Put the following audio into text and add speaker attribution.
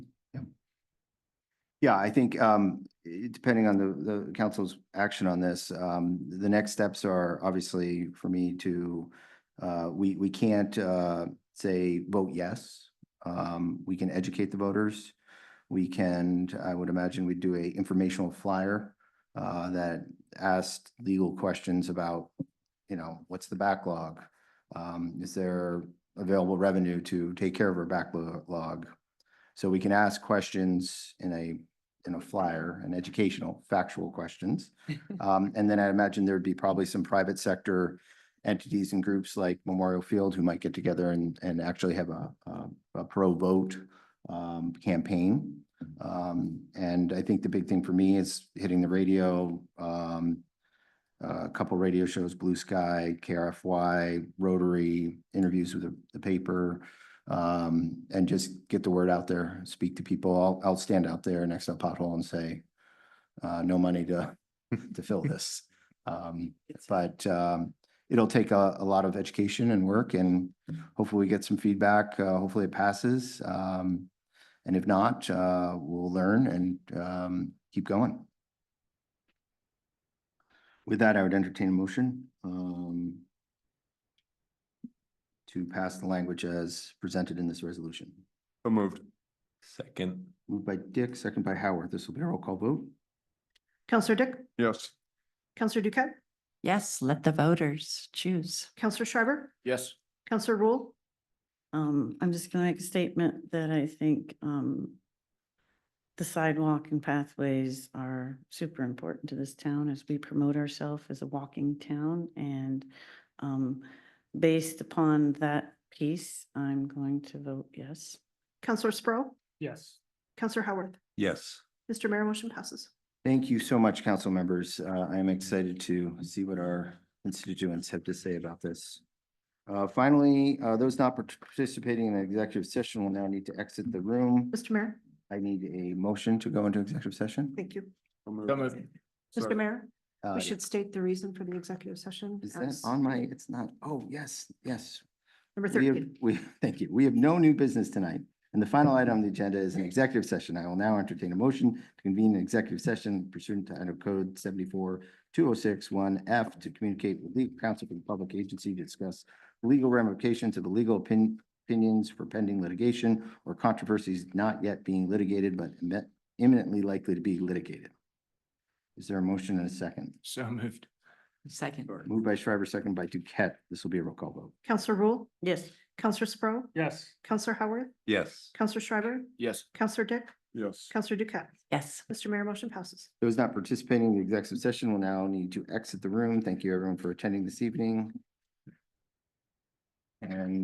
Speaker 1: Yeah, I think, um, i- depending on the, the council's action on this, um, the next steps are obviously for me to, uh, we, we can't, uh, say vote yes. Um, we can educate the voters. We can, I would imagine we'd do a informational flyer, uh, that asked legal questions about, you know, what's the backlog? Um, is there available revenue to take care of our backlog? So we can ask questions in a, in a flyer, an educational, factual questions. Um, and then I imagine there'd be probably some private sector entities and groups like Memorial Field who might get together and, and actually have a, um, a pro vote um, campaign. Um, and I think the big thing for me is hitting the radio, um, a couple radio shows, Blue Sky, KRFY, Rotary, interviews with the, the paper, um, and just get the word out there, speak to people. I'll, I'll stand out there next to a pothole and say, uh, no money to, to fill this. Um, but, um, it'll take a, a lot of education and work and hopefully we get some feedback. Uh, hopefully it passes. Um, and if not, uh, we'll learn and, um, keep going. With that, I would entertain a motion, um, to pass the language as presented in this resolution.
Speaker 2: So moved. Second.
Speaker 1: Moved by Dick, second by Howard. This will be a roll call vote.
Speaker 3: Counselor Dick,
Speaker 2: Yes.
Speaker 3: Counselor Duquette,
Speaker 4: Yes, let the voters choose.
Speaker 3: Counselor Schreiber,
Speaker 2: Yes.
Speaker 3: Counselor Rule,
Speaker 5: Um, I'm just gonna make a statement that I think, um, the sidewalk and pathways are super important to this town as we promote ourselves as a walking town. And, um, based upon that piece, I'm going to vote yes.
Speaker 3: Counselor Sprow,
Speaker 6: Yes.
Speaker 3: Counselor Howard.
Speaker 2: Yes.
Speaker 3: Mr. Mayor, motion passes.
Speaker 1: Thank you so much, council members. Uh, I am excited to see what our constituents have to say about this. Uh, finally, uh, those not participating in the executive session will now need to exit the room.
Speaker 3: Mr. Mayor,
Speaker 1: I need a motion to go into executive session.
Speaker 3: thank you. Mr.
Speaker 2: Sorry.
Speaker 3: Mayor,
Speaker 1: Uh,
Speaker 3: we should state the reason for the executive session.
Speaker 1: Is that
Speaker 3: as
Speaker 1: on my, it's not, oh, yes, yes,
Speaker 3: Number
Speaker 1: We have,
Speaker 3: thirteen.
Speaker 1: we, thank you. We have no new business tonight. And the final item on the agenda is an executive session. I will now entertain a motion to convene an executive session pursuant to Idaho Code seventy-four two oh six one F to communicate with legal counsel for the public agency to discuss legal ramifications of the legal opin- opinions for pending litigation or controversies not yet being litigated but imme- imminently likely to be litigated. Is there a motion and a second?
Speaker 6: So moved.
Speaker 4: Second.
Speaker 1: Moved by Shriver, second by Duquette. This will be a roll call vote.
Speaker 3: Counselor Rule,
Speaker 5: Yes.
Speaker 3: Counselor Sprow,
Speaker 6: Yes.
Speaker 3: Counselor Howard,
Speaker 2: Yes.
Speaker 3: Counselor Schreiber,
Speaker 6: Yes.
Speaker 3: Counselor Dick,
Speaker 2: Yes.
Speaker 3: Counselor Duquette.
Speaker 4: Yes.
Speaker 3: Mr. Mayor, motion passes.
Speaker 1: Those not participating in the executive session will now need to exit the room. Thank you everyone for attending this evening. And